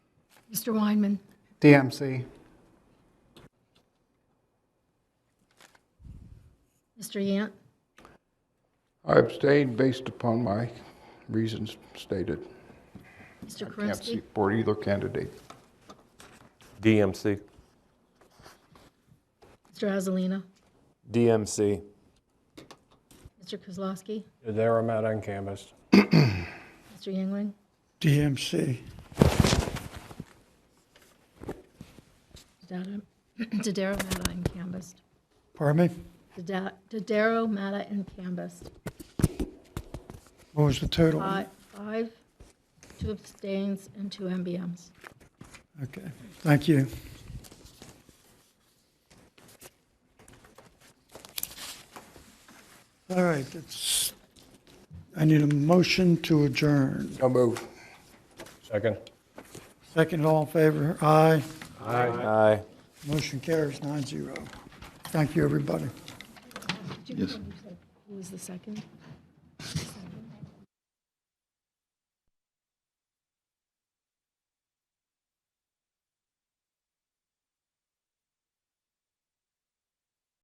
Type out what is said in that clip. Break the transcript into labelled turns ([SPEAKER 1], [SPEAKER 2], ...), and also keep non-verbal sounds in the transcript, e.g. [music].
[SPEAKER 1] Mr. Weinman,
[SPEAKER 2] DMC.
[SPEAKER 1] Mr. Yant,
[SPEAKER 3] I abstain based upon my reasons stated.
[SPEAKER 1] Mr.
[SPEAKER 3] Can't
[SPEAKER 1] Karinsky,
[SPEAKER 3] support either candidate.
[SPEAKER 4] DMC.
[SPEAKER 1] Mr. Azalina,
[SPEAKER 5] DMC.
[SPEAKER 1] Mr. Kozlowski,
[SPEAKER 6] There I'm out on canvas.
[SPEAKER 1] Mr. Yingling,
[SPEAKER 7] DMC.
[SPEAKER 1] Dada- [clears throat] Dodaro, Mata, and Cambiст.
[SPEAKER 7] Pardon me?
[SPEAKER 1] Dada- Dodaro, Mata, and Cambiст.
[SPEAKER 7] What was the total?
[SPEAKER 1] Fi- Five, two abstains, and two MBMs.
[SPEAKER 7] Okay, thank you. All right, it's, I need a motion to adjourn.
[SPEAKER 3] No move.
[SPEAKER 6] Second.
[SPEAKER 7] Second, all in favor? Aye.
[SPEAKER 5] Aye.
[SPEAKER 7] Motion carries nine zero. Thank you, everybody.
[SPEAKER 1] Did you- Who was the second?